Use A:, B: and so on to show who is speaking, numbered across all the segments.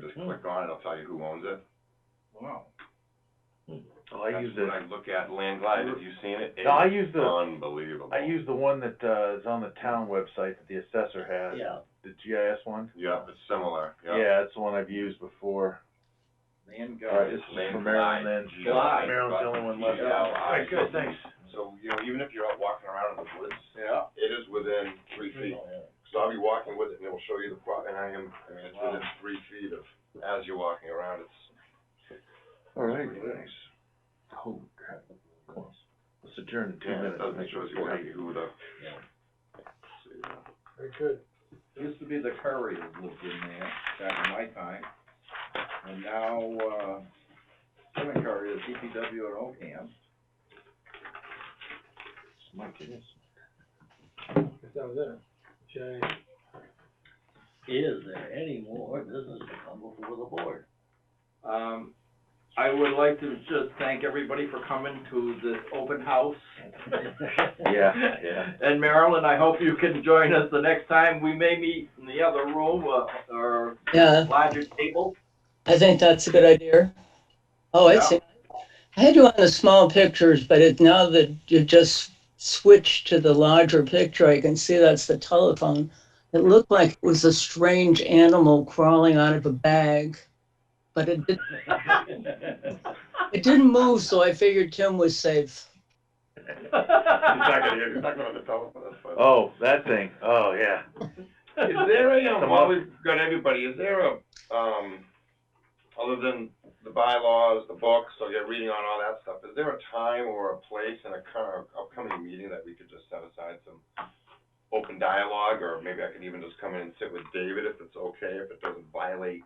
A: Hmm.
B: click on it, it'll tell you who owns it.
C: Wow.
A: Oh, I
B: That's
A: use
B: When
A: the,
B: I look at Land Glide, have you seen it?
A: No, I use the-
B: Unbelievable.
A: I use the one that, uh, is on the town website that the assessor has,
C: Yeah,
A: the GIS one.
B: Yeah, it's similar, yeah.
A: Yeah, it's the one I've used before.
C: man,
A: All right,
C: guys.
A: this is
B: Land
A: for Maryland
B: Glide.
A: then.
B: Glide.
A: Maryland's the only one left.
B: Yeah,
A: All right,
B: I-
A: good, thanks.
B: So, you know, even if you're out walking around in the woods,
C: Yeah.
B: it is within three feet.
A: Oh,
B: So I'll be walking with it and it'll show you the plot, and I am, I mean, it's
C: Wow.
B: within three feet of, as you're walking around, it's
A: All right.
B: pretty nice.
A: Oh, crap. Come on. Let's adjourn in two
B: Yeah,
A: minutes.
B: it doesn't show you exactly who the.
C: Yeah.
B: So, yeah.
C: Very good. Used to be the Curry that lived in there back in my time, and now, uh, Kevin Curry is DPW at Oakham.
A: My goodness.
D: If that was it, should I,
E: Is there any more business to come before the board?
C: Um, I would like to just thank everybody for coming to this open house.
A: Yeah, yeah.
C: And Marilyn, I hope you can join us the next time. We may meet in the other room, uh, or
F: Yeah,
C: larger table.
F: I think that's a good idea. Oh, I
C: Yeah.
F: see. I had you on the small pictures, but it, now that you just switched to the larger picture, I can see that's the telephone. It looked like it was a strange animal crawling out of a bag, but it didn't, it didn't move, so I figured Tim was safe.
B: He's not gonna, hear- he's not gonna tell us, but.
A: Oh, that thing. Oh, yeah.
B: Is there a, um,
A: Come
B: while
A: on.
B: we've got everybody, is there a, um, other than the bylaws, the books, so you're reading on all that stuff, is there a time or a place in a kind of upcoming meeting that we could just set aside some open dialogue, or maybe I could even just come in and sit with David if it's okay, if it doesn't violate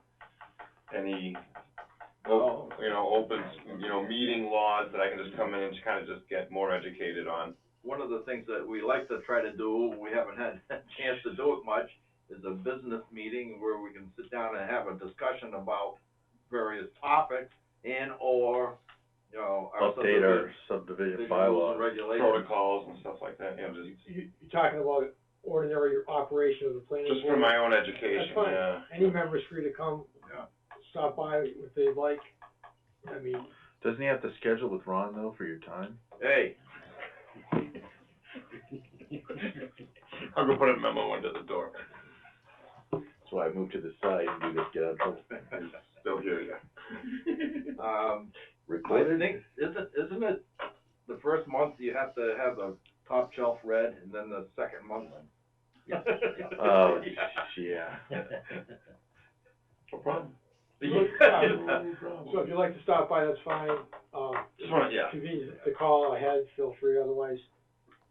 B: any,
C: Oh.
B: you know, open, you know, meeting laws, that I can just come in and just kind of just get more educated on?
C: One of the things that we like to try to do, we haven't had a chance to do it much, is a business meeting where we can sit down and have a discussion about various topics and or, you know, our
A: Update
C: subdivision-
A: our subdivision
C: subdivision rules and
A: bylaws.
C: Regulations.
B: Protocols and stuff like that, you know, just,
D: you, you're talking about ordinary operation of the planning board?
B: just for my own education,
D: That's fine.
B: yeah.
D: Any member's free to come,
C: Yeah.
D: stop by if they'd like, I mean,
A: Doesn't he have to schedule with Ron though for your time?
C: Hey,
B: I'll go put a memo under the door.
A: That's why I moved to the side and do this, get out of trouble.
B: They'll hear you.
C: um, I
A: Recorded?
C: think, isn't, isn't it, the first month you have to have the top shelf red, and then the second month?
A: Oh, yeah.
B: No problem.
D: so if you'd like to stop by, that's fine, um.
B: Just wanna- yeah.
D: Convenient to call ahead, feel free, otherwise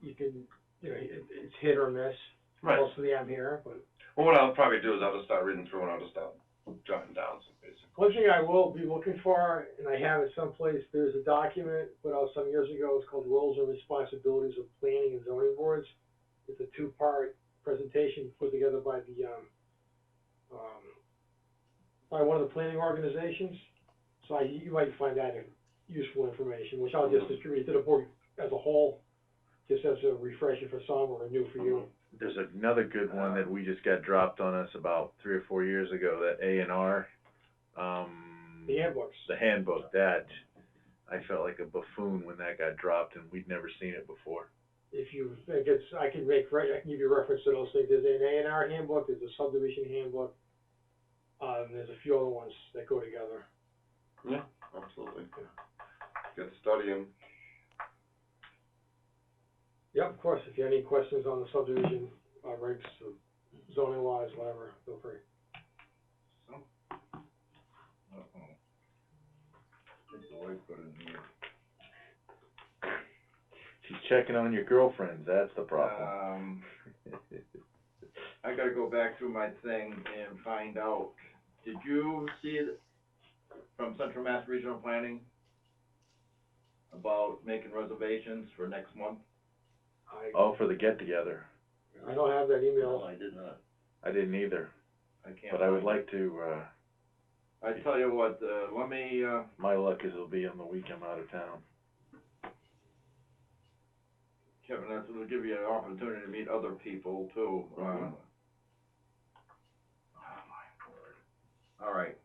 D: you can, you know, it, it's hit or miss.
B: Right.
D: Mostly I'm here, but
B: Well, what I'll probably do is I'll just start reading through and I'll just start jotting down some basic.
D: one thing I will be looking for, and I have it someplace, there's a document put out some years ago, it's called Roles and Responsibilities of Planning and Zoning Boards. It's a two-part presentation put together by the, um, um, by one of the planning organizations. So I, you might find that useful information, which I'll just distribute to the board as a whole, just as a refresher for some or a new for you.
A: There's another good one that we just got dropped on us about three or four years ago, that A and R, um,
D: The handbooks.
A: the handbook, that, I felt like a buffoon when that got dropped and we'd never seen it before.
D: if you think it's, I can make, re- I can give you reference to those things, there's an A and R handbook, there's a subdivision handbook, um, there's a few other ones that go together.
B: Absolutely. Good studying.
D: Yep, of course, if you have any questions on the subdivision, uh, regs, or zoning laws, whatever, feel free.
A: She's checking on your girlfriends, that's the problem.
C: Um, I gotta go back through my thing and find out, did you see it from Central Mass Regional Planning? About making reservations for next month?
D: I,
A: Oh, for the get-together,
D: I don't have that
E: No,
D: email,
E: I did not.
A: I didn't either,
C: I can't.
A: but I would
C: find
A: like to, uh,
C: it. I tell you what, uh, let me, uh,
A: my luck is it'll be on the week I'm out of town.
C: Kevin, that's gonna give you an opportunity to meet other people too, uh.
A: Mhm.
C: oh, my word. All right,